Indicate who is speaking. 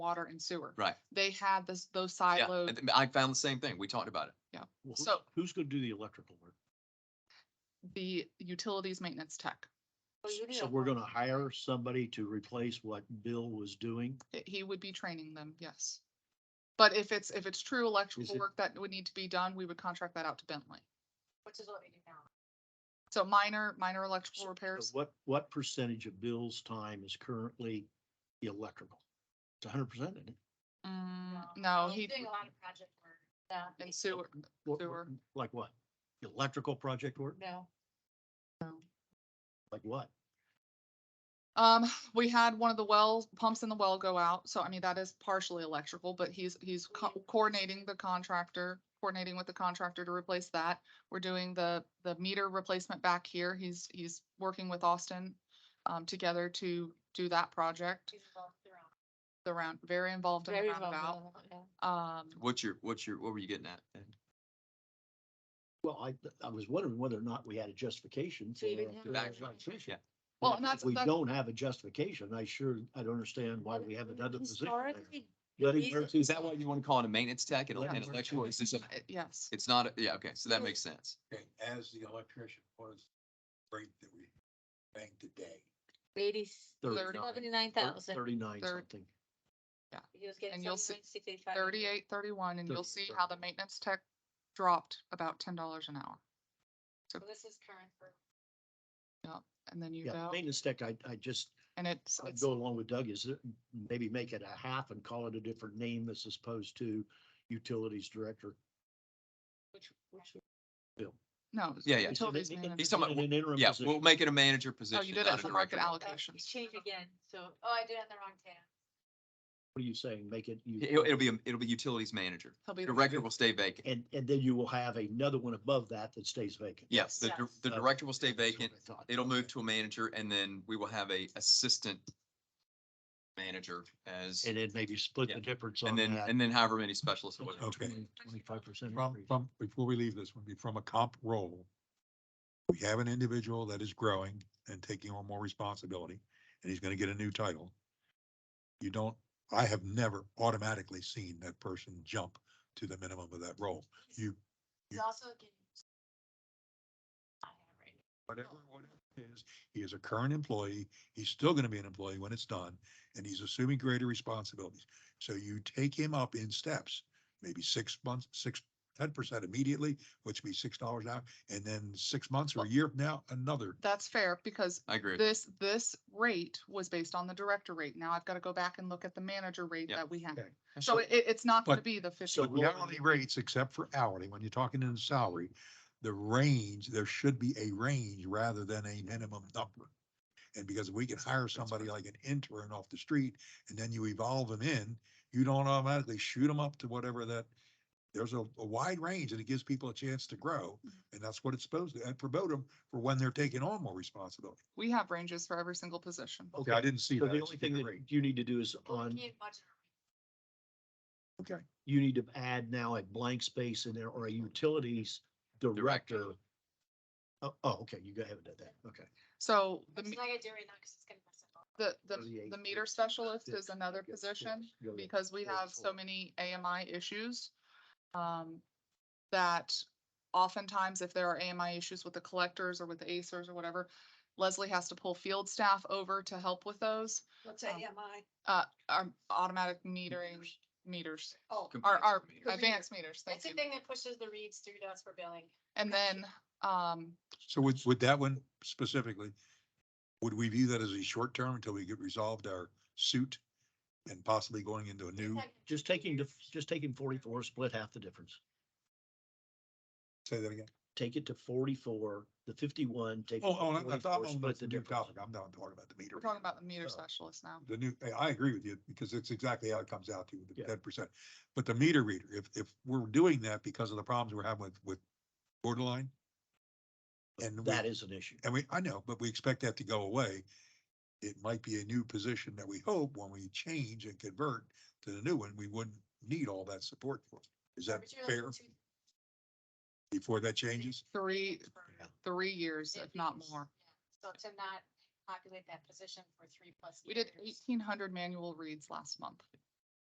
Speaker 1: water and sewer.
Speaker 2: Right.
Speaker 1: They had this, those side
Speaker 2: Yeah,
Speaker 1: load,
Speaker 2: I found the same thing. We talked about it.
Speaker 3: Well, who-
Speaker 1: So-
Speaker 3: Who's gonna do the electrical work?
Speaker 1: the utilities maintenance tech. Oh,
Speaker 4: Well, Oh, you need
Speaker 3: So
Speaker 4: a
Speaker 3: we're
Speaker 4: whole-
Speaker 3: gonna hire somebody to replace what Bill was doing?
Speaker 1: He- He would be training them, yes. But if it's, if it's true electrical
Speaker 3: it-
Speaker 1: work that would need to be done, we would contract that out to Bentley.
Speaker 4: Which is what we do now.
Speaker 1: So minor, minor electrical
Speaker 3: So
Speaker 1: repairs,
Speaker 3: What, what percentage of Bill's time is currently the electrical? It's hundred percent.
Speaker 1: mm, no,
Speaker 4: Well,
Speaker 1: he,
Speaker 4: Um, Doing a lot of project work. Yeah.
Speaker 1: and sewer, Sewer.
Speaker 3: Like what? Electrical project work?
Speaker 4: No.
Speaker 3: Like what?
Speaker 1: Um, we had one of the well pumps in the well go out, so I mean, that is partially electrical, but he's, he's co- coordinating the contractor, coordinating with the contractor to replace that. We're doing the, the meter replacement back here. He's, he's working with Austin, um, together to do that project.
Speaker 4: she's involved with her own.
Speaker 1: The round, very involved in the
Speaker 4: Very involved
Speaker 1: roundabout.
Speaker 4: with her own, yeah.
Speaker 1: Um,
Speaker 2: What's your, what's your, what were you getting at? Ed?
Speaker 3: Well, I, I was wondering whether or not we had a justification.
Speaker 4: To even
Speaker 3: for-
Speaker 4: have
Speaker 3: for
Speaker 4: an
Speaker 3: that
Speaker 4: electrical.
Speaker 3: position.
Speaker 2: Yeah.
Speaker 1: Well,
Speaker 3: If-
Speaker 1: and that's-
Speaker 3: If we
Speaker 1: that's-
Speaker 3: don't have a justification, I sure, I don't understand why we have another position. there.
Speaker 4: Historically,
Speaker 3: Let him
Speaker 4: these-
Speaker 3: work
Speaker 2: Is that why you want to call it a maintenance tech and
Speaker 3: Yeah.
Speaker 2: an electrical? Is this a,
Speaker 1: it- yes,
Speaker 2: it's not, a- yeah, okay, so that makes sense.
Speaker 5: Okay, as the electrician, what is the rate that we bank today?
Speaker 4: Ladies,
Speaker 3: Thirty-
Speaker 1: Thirty-
Speaker 4: seventy-nine thousand.
Speaker 3: Thirty-nine
Speaker 1: Thir-
Speaker 3: something.
Speaker 4: He was getting
Speaker 1: And you'll see
Speaker 4: 79, 65.
Speaker 1: thirty-eight, thirty-one, and you'll see how the
Speaker 3: 38.
Speaker 1: maintenance tech dropped about ten dollars an hour.
Speaker 4: So This is current for.
Speaker 1: And then you
Speaker 3: Yeah,
Speaker 1: go,
Speaker 3: maintenance tech, I, I just,
Speaker 1: and it's,
Speaker 3: I'd
Speaker 1: it's-
Speaker 3: go along with Doug is that maybe make it a half and call it a different name as opposed to utilities director.
Speaker 4: Which, which.
Speaker 1: no.
Speaker 2: Yeah, yeah.
Speaker 3: It's an-
Speaker 1: Utilities
Speaker 3: it-
Speaker 1: maintenance.
Speaker 2: He's talking
Speaker 3: in an interim
Speaker 2: Yeah,
Speaker 3: position.
Speaker 2: we'll make it a manager position.
Speaker 1: did it
Speaker 2: not a
Speaker 1: under
Speaker 2: director.
Speaker 1: market alloc-
Speaker 4: uh,
Speaker 1: Allocations.
Speaker 4: it Changed again, so, oh, I did it on the wrong tab.
Speaker 3: What are you saying? Make it,
Speaker 2: It'll,
Speaker 3: you,
Speaker 2: it'll be, a- it'll be utilities manager.
Speaker 1: He'll be. the-
Speaker 2: Director will stay vacant.
Speaker 3: and, and then you will have another one above that that stays vacant.
Speaker 2: Yes, the,
Speaker 4: Yes.
Speaker 2: dir- the
Speaker 3: Okay.
Speaker 2: director will stay
Speaker 3: That's what
Speaker 2: vacant.
Speaker 3: I thought.
Speaker 2: It'll move to a manager and then we will have a assistant manager as,
Speaker 3: And then maybe split
Speaker 2: Yeah.
Speaker 3: the difference on
Speaker 2: and then,
Speaker 3: that.
Speaker 2: and then however many specialists. or whatever.
Speaker 5: Okay.
Speaker 3: Twenty-five percent.
Speaker 5: From, from, before we leave this one, be from a comp role. We have an individual that is growing and taking on more responsibility, and he's gonna get a new title. You don't, I have never automatically seen that person jump to the minimum of that role. You,
Speaker 4: He's
Speaker 5: Yeah.
Speaker 4: also getting. I have right now.
Speaker 5: whatever, whatever it is, he is a current employee, he's still gonna be an employee when it's done, and he's assuming greater responsibilities. So you take him up in steps, maybe six months, six, ten percent immediately, which would be six dollars an hour, and then six months or a year from now, another.
Speaker 1: That's fair, because
Speaker 2: I agree.
Speaker 1: this, this rate was based on the director rate. Now I've got to go back and look at the manager rate
Speaker 2: Yeah.
Speaker 1: that we have.
Speaker 5: Okay.
Speaker 1: So it, it's not going to
Speaker 5: But-
Speaker 1: be the
Speaker 3: so
Speaker 1: fifty.
Speaker 5: So the
Speaker 3: we'll-
Speaker 5: hourly rates, except for hourly, when you're talking in salary, the range, there should be a range rather than a minimum number. And because we can hire somebody like an intern off the street and then you evolve them in, you don't automatically shoot them up to whatever that. There's a, a wide range and it gives people a chance to grow.
Speaker 3: Mm-hmm.
Speaker 5: And that's what it's supposed to, and promote them for when they're taking on more responsibility.
Speaker 1: We have ranges for every single position.
Speaker 5: Okay, I didn't see
Speaker 3: So
Speaker 5: that. I
Speaker 3: the
Speaker 5: just
Speaker 3: only thing
Speaker 5: did
Speaker 3: that
Speaker 5: rate.
Speaker 3: you need to do is
Speaker 4: Well, we
Speaker 3: on,
Speaker 4: can't budget around
Speaker 5: Okay.
Speaker 3: you need to add now a blank space in there or
Speaker 5: Mm-hmm.
Speaker 3: a utilities director. Oh, oh, okay, you go ahead and do that. Okay.
Speaker 1: So the,
Speaker 4: It's
Speaker 1: me-
Speaker 4: not gonna do it right now, cause it's gonna mess up.
Speaker 1: the, the,
Speaker 3: 38,
Speaker 1: the meter specialist
Speaker 3: Yeah,
Speaker 1: is another
Speaker 3: yes,
Speaker 1: position
Speaker 3: yes, go ahead.
Speaker 1: because we have so
Speaker 3: 34.
Speaker 1: many AMI issues. Um, that oftentimes if there are AMI issues with the collectors or with the acers or whatever, Leslie has to pull field staff over to help with those.
Speaker 4: What's E
Speaker 1: Um,
Speaker 4: AMI?
Speaker 1: Uh, our automatic metering meters,
Speaker 4: Oh.
Speaker 1: our, our
Speaker 2: Compliance
Speaker 4: meter.
Speaker 1: advanced meters, thank
Speaker 4: That's the
Speaker 1: you.
Speaker 4: thing that pushes the reeds through to us for billing.
Speaker 1: And then, um,
Speaker 5: So with, with that one specifically, would we view that as a short term until we get resolved our suit and possibly going into a new,
Speaker 3: Just taking, the just taking forty-four, split half the difference.
Speaker 5: say that again?
Speaker 3: Take it to forty-four, the fifty-one, take. it
Speaker 5: Oh,
Speaker 3: to
Speaker 5: oh, I- I thought
Speaker 3: 44,
Speaker 5: on
Speaker 3: split
Speaker 5: the
Speaker 3: the
Speaker 5: new
Speaker 3: difference.
Speaker 5: topic. I'm not talking about the meter.
Speaker 1: we're talking about the meter
Speaker 5: Oh.
Speaker 1: specialist now.
Speaker 5: The new, I- I agree with you because it's exactly how it comes out to you, the
Speaker 3: Yeah.
Speaker 5: ten percent. But the meter reader, if, if we're doing that because of the problems we're having with, with borderline. And we-
Speaker 3: That is an issue.
Speaker 5: And we, I know, but we expect that to go away. It might be a new position that we hope when we change and convert to the new one, we wouldn't need all that support for. Is that fair before that changes?
Speaker 1: Three, three years, if not more.
Speaker 4: So to not populate that position for three plus.
Speaker 1: We did
Speaker 4: years.
Speaker 1: eighteen hundred manual reads last month.